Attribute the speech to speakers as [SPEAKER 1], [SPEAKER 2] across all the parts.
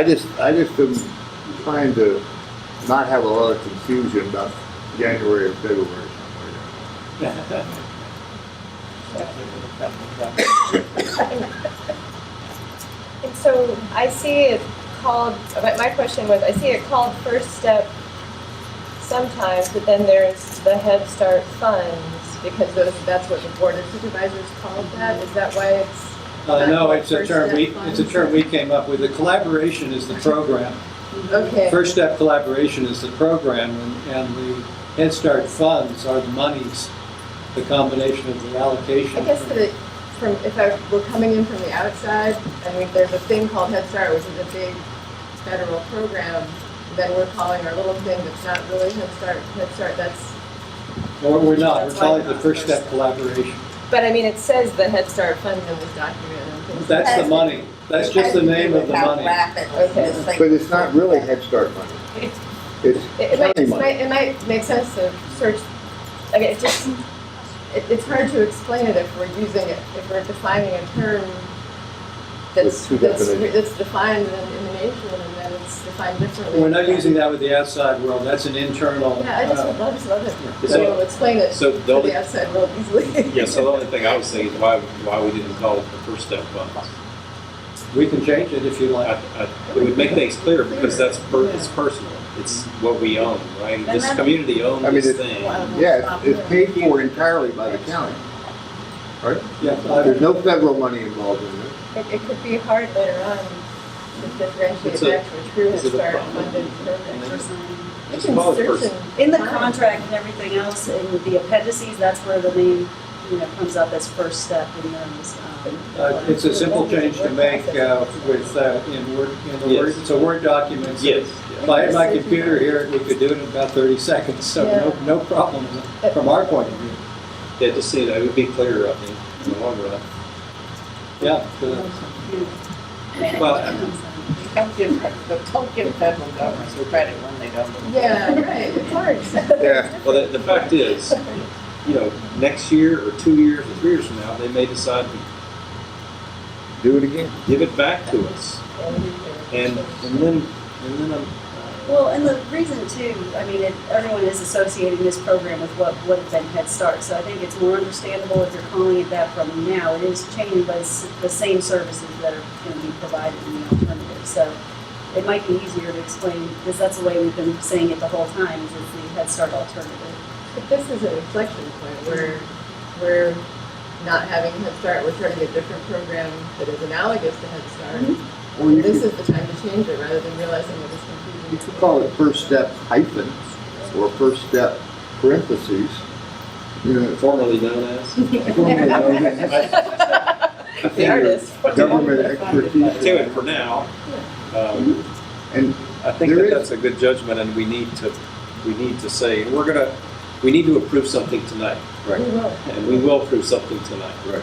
[SPEAKER 1] I just, I just am trying to not have a lot of confusion about January and February.
[SPEAKER 2] And so I see it called, my, my question was, I see it called First Step sometimes, but then there's the Head Start funds, because those, that's what the Board of Supervisors called that, is that why it's?
[SPEAKER 3] Uh, no, it's a
[SPEAKER 2] First
[SPEAKER 3] term
[SPEAKER 2] step
[SPEAKER 3] we, it's a term we came up with. The collaboration is the program.
[SPEAKER 2] Okay,
[SPEAKER 3] First Step Collaboration is the program, and- and the Head Start funds are the monies, the combination of the allocation.
[SPEAKER 2] I guess that from, if I were coming in from the outside, I mean, there's a thing called Head Start, which is a big federal program, then we're calling our little thing that's not really Head Start, Head Start, that's
[SPEAKER 3] Or we're not, we're
[SPEAKER 2] That's
[SPEAKER 3] calling it
[SPEAKER 2] why
[SPEAKER 3] the First Step Collaboration.
[SPEAKER 2] But I mean, it says the Head Start fund in this document. and things.
[SPEAKER 3] That's the money. That's just the name of the money.
[SPEAKER 1] But it's not really Head Start money. It's
[SPEAKER 2] It, it might,
[SPEAKER 1] county
[SPEAKER 2] it
[SPEAKER 1] money.
[SPEAKER 2] might, it might make sense to search, I mean, it just, it, it's hard to explain it if we're using it, if we're defining a term that's,
[SPEAKER 1] With two
[SPEAKER 2] that's,
[SPEAKER 1] definitions.
[SPEAKER 2] that's defined in, in the nation and then it's defined differently.
[SPEAKER 3] We're not using that with the outside world. That's an internal.
[SPEAKER 2] Yeah, I just
[SPEAKER 3] uh,
[SPEAKER 2] would love, just love it, to
[SPEAKER 4] So-
[SPEAKER 2] be able to explain it
[SPEAKER 4] So
[SPEAKER 2] to
[SPEAKER 4] the only,
[SPEAKER 2] the outside world easily.
[SPEAKER 4] yeah, so the only thing I would say is why, why we didn't call it the first step funds.
[SPEAKER 3] We can change it if you
[SPEAKER 4] I,
[SPEAKER 3] like.
[SPEAKER 4] I, it would make things clear because that's, per, it's personal. It's what we own, right? This community owns
[SPEAKER 1] I mean,
[SPEAKER 4] this
[SPEAKER 1] it-
[SPEAKER 4] thing.
[SPEAKER 1] Yeah, it's it's paid for entirely by the county.
[SPEAKER 3] Yeah, I-
[SPEAKER 1] There's no federal money involved in it.
[SPEAKER 2] It, it could be hard later on to differentiate
[SPEAKER 4] It's a-
[SPEAKER 2] that from a true Head
[SPEAKER 4] is it a
[SPEAKER 2] Start
[SPEAKER 4] problem?
[SPEAKER 2] funded program. You
[SPEAKER 4] It's
[SPEAKER 2] can
[SPEAKER 4] about the
[SPEAKER 2] search
[SPEAKER 4] person.
[SPEAKER 2] and
[SPEAKER 5] In the
[SPEAKER 2] find.
[SPEAKER 5] contract and everything else, in the appendices, that's where the name, you know, comes up as first step in those. um,
[SPEAKER 3] Uh, It's a simple change to make uh, with, uh, in Word, in the Word,
[SPEAKER 4] Yes.
[SPEAKER 3] it's a Word document. so
[SPEAKER 4] Yes.
[SPEAKER 3] If I had my computer here, we could do it in about 30 seconds, so no, no problem from our point of view.
[SPEAKER 4] Yeah, just see, it would be clearer, I think, in the long run.
[SPEAKER 3] Yeah, so
[SPEAKER 4] Well,
[SPEAKER 6] Don't give, don't give federal governments the credit when they don't.
[SPEAKER 2] Yeah, right, it's hard.
[SPEAKER 1] Yeah.
[SPEAKER 4] well, the, the fact is, you know, next year or two years or three years from now, they may decide to
[SPEAKER 1] Do it again.
[SPEAKER 4] give it back to us. And, and then, and then I'm,
[SPEAKER 5] Well, and the reason too, I mean, it- everyone is associating this program with what would have been Head Start, so I think it's more understandable if you're calling it that from now. It is changing, but it's the same services that are going to be provided in the alternative. So it might be easier to explain, because that's the way we've been saying it the whole time, is it's the Head Start alternative.
[SPEAKER 2] But this is an inflection point where we're not having Head Start, we're starting a different program that is analogous to Head Start.
[SPEAKER 1] Or you
[SPEAKER 2] This
[SPEAKER 1] could,
[SPEAKER 2] is the time to change it rather than realizing that it's confusing.
[SPEAKER 1] you could call it First Step hyphen or First Step parentheses. You know,
[SPEAKER 4] formerly known as.
[SPEAKER 1] formerly known as
[SPEAKER 4] I think you're-
[SPEAKER 1] Government expertise.
[SPEAKER 4] do it for now. Um,
[SPEAKER 1] And
[SPEAKER 4] I think
[SPEAKER 1] There
[SPEAKER 4] that
[SPEAKER 1] is-
[SPEAKER 4] that's a good judgment, and we need to, we need to say, we're gonna, we need to approve something tonight.
[SPEAKER 2] We will.
[SPEAKER 4] And we will approve something tonight.
[SPEAKER 1] Right.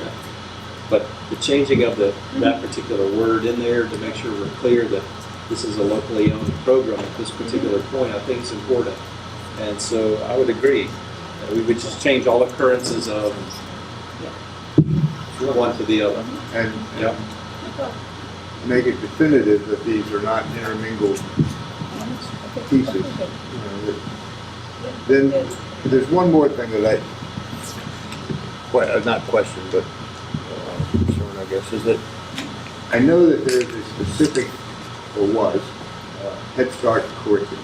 [SPEAKER 4] But the changing of the, that particular word in there to make sure we're clear that this is a locally owned program at this particular point, I think is important. And so I would agree, that we would just change all occurrences of one to the other.
[SPEAKER 1] and
[SPEAKER 4] Yep.
[SPEAKER 1] make it definitive that these are not intermingled pieces. you know, that- Then, there's one more thing that I, que- uh, not question, but uh, concern, I guess, is that I know that there's a specific, or was, uh, Head Start curriculum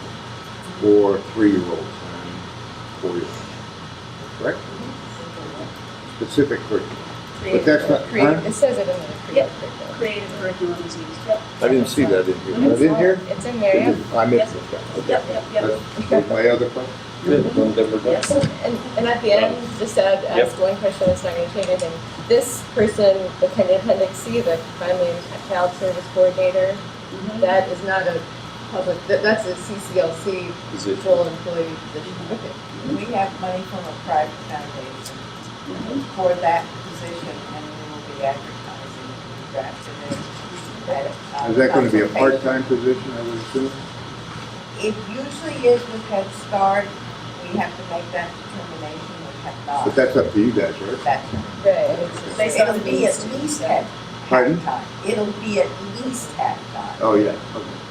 [SPEAKER 1] for three-year-olds and four-year-olds, correct? Specific curriculum, but that's not. huh?
[SPEAKER 2] Create, it says it in the creative
[SPEAKER 5] Yep.
[SPEAKER 2] curriculum.
[SPEAKER 5] Creative curriculum is used, yep.
[SPEAKER 1] I didn't see that in here. Was it in here?
[SPEAKER 2] It's in there, yeah.
[SPEAKER 1] I missed it. Okay.
[SPEAKER 5] Yep, yep, yep.
[SPEAKER 1] That's that's my other question.
[SPEAKER 5] Yes.
[SPEAKER 2] And, and at the end, just to add, ask one question, it's not gonna change anything. This person, the kind of appendix C, the primary child service coordinator, that is not a public, that, that's a CCLC
[SPEAKER 4] Is it-
[SPEAKER 2] full employee position. Okay.
[SPEAKER 6] We have money from a private foundation for that position, and we will be advertising the draft today.
[SPEAKER 1] Is that going to be a part-time position, I would assume?
[SPEAKER 6] It usually is with Head Start, we have to make that determination, we have not.
[SPEAKER 1] But that's up to you guys, right?
[SPEAKER 6] That's-
[SPEAKER 2] Right, it's just-
[SPEAKER 5] Based on
[SPEAKER 6] It'll
[SPEAKER 5] the
[SPEAKER 6] be at
[SPEAKER 5] needs.
[SPEAKER 6] least at half
[SPEAKER 1] Pardon?
[SPEAKER 6] time. It'll be at least half time.
[SPEAKER 1] Oh, yeah. Okay.